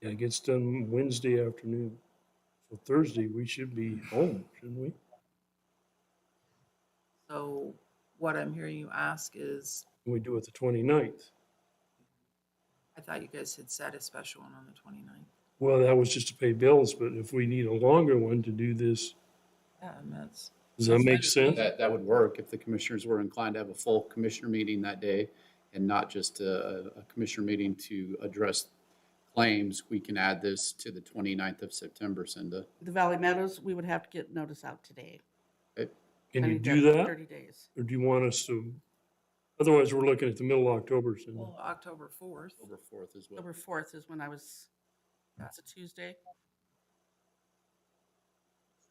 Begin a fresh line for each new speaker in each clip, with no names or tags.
It gets done Wednesday afternoon. So Thursday, we should be home, shouldn't we?
So what I'm hearing you ask is,
And we do it the 29th.
I thought you guys had set a special one on the 29ninth.
Well, that was just to pay bills, but if we need a longer one to do this,
Yeah, and that's,
does that make sense?
That, that would work if the commissioners were inclined to have a full commissioner meeting that day and not just a, a commissioner meeting to address claims. We can add this to the 29th of September, Cinda.
The Valley Meadows, we would have to get notice out today.
Can
I
you
need
do that?
Thirty days.
Or do you want us to? Otherwise, we're looking at the middle of October, Cindy.
well, October 4th.
October 4th as well.
October fourth is when I was, that's a Tuesday.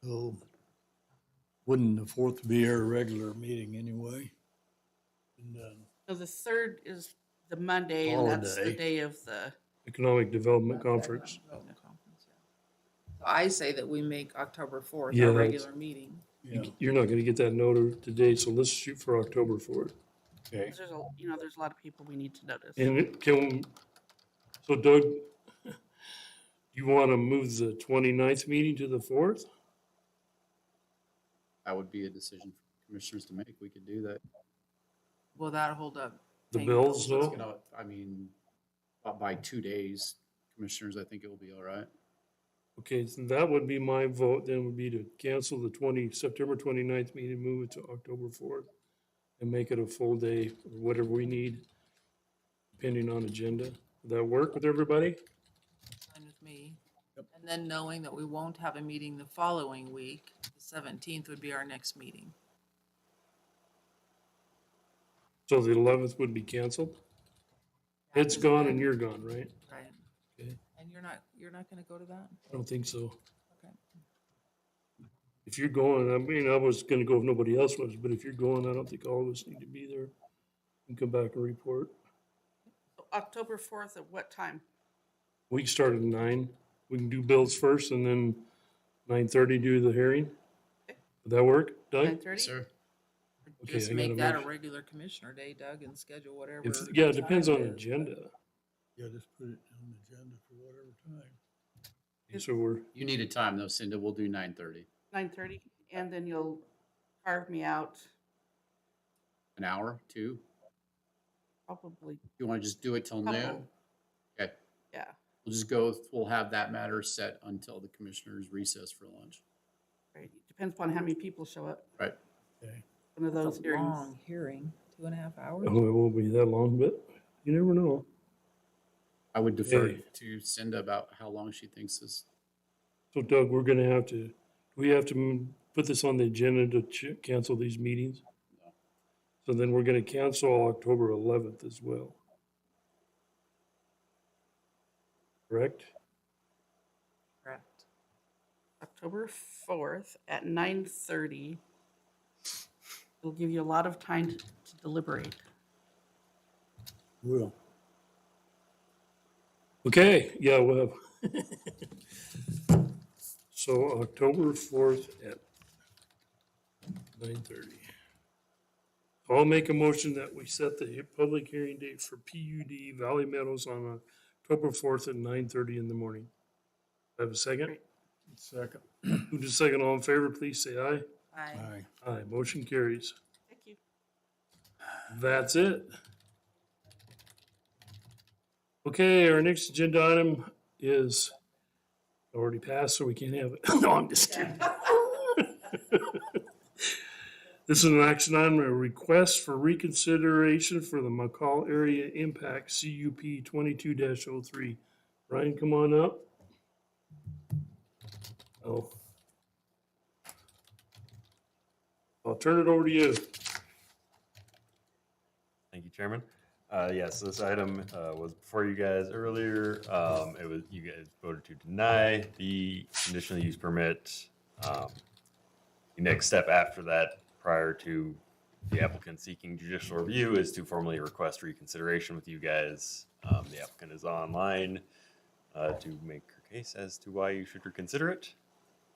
So wouldn't the fourth be our regular meeting anyway? And uh, then
So the third is the Monday and that's the
Holiday.
day of the,
Economic Development Conference.
Development Conference, yeah. So I say that we make October 4th
Yeah,
our
that's-
regular meeting.
Yeah,
You're not gonna get that note today, so let's shoot for October for it.
okay.
'cause there's a, you know, there's a lot of people we need to notice.
And it can, so Doug, you wanna move the 29th meeting to the fourth?
That would be a decision for commissioners to make. We could do that.
Will that hold up?
The
paying
bills,
It's
though?
gonna- I mean, by- by two days, commissioners, I think it will be all right.
Okay, so that would be my vote then would be to cancel the twenty, September 29th meeting, move it to October fourth. And make it a full day, whatever we need, depending on agenda. Would that work with everybody?
Fine with me. And then knowing that we won't have a meeting the following week, the 17th would be our next meeting.
So the eleventh would be canceled? Ed's gone and you're gone, right?
Right.
Okay.
And you're not, you're not going to go to that?
I don't think so.
Okay.
If you're going, I mean, I was gonna go if nobody else was, but if you're going, I don't think all of us need to be there. And come back and report.
So October fourth at what time?
We can start at nine. We can do bills first and then nine thirty do the hearing. Would that work,
Nine
Doug?
thirty?
Or
Okay,
Just
I
make
gotta
that a
make-
regular commissioner day, Doug, and schedule whatever.
If, yeah, it
time
depends on
is.
agenda.
Yeah, just put it on the agenda for whatever time.
So we're,
You need a time though, Cinda. We'll do 9:30.
Nine thirty, and then you'll carve me out
An hour, two?
probably,
You want to just do it till
Couple.
noon? Okay.
yeah.
We'll just go, we'll have that matter set until the commissioners recess for lunch.
Right, depends upon how many people show up,
Right.
Okay.
one of
That's
those
a
hearings.
Long hearing, two and a half hours.
oh, it won't be that long, but you never know.
I would defer
Okay.
to Cinda about how long she thinks this,
So Doug, we're gonna have to, we have to m- put this on the agenda to ch- cancel these meetings? So then we're gonna cancel October eleventh as well. Correct?
Correct.
October fourth at nine thirty. It'll give you a lot of time to to deliberate.
Will.
Okay, yeah, we'll have. So October fourth at nine thirty. I'll make a motion that we set the he- public hearing date for PUD Valley Meadows on October fourth at nine thirty in the morning. I have a second?
Second.
Who just second all in favor, please say aye.
Aye.
Aye.
Aye, motion carries.
Thank you.
That's it. Okay, our next agenda item is already passed, so we can't have it. No, I'm just kidding. This is an action item, a request for reconsideration for the McCall Area Impact CUP twenty-two 3 Brian, come on up. Oh. I'll turn it over to you.
Thank you, Chairman. Uh, Yes, this item uh, was before you guys earlier. Um, It was, you guys voted to deny the conditional use permit. Um, The next step after that, prior to the applicant seeking judicial review, is to formally request reconsideration with you guys. Um, The applicant is online uh, to make her case as to why you should reconsider it.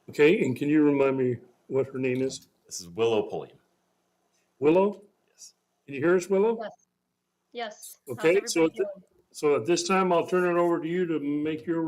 Okay, and can you remind me what her name is?
This is Willow Pulliam.
Willow?
Yes.
Can you hear us, Willow?
Yes. Yes. how's
Okay, so
everybody
at thi-
doing?
So at this time, I'll turn it over to you to make your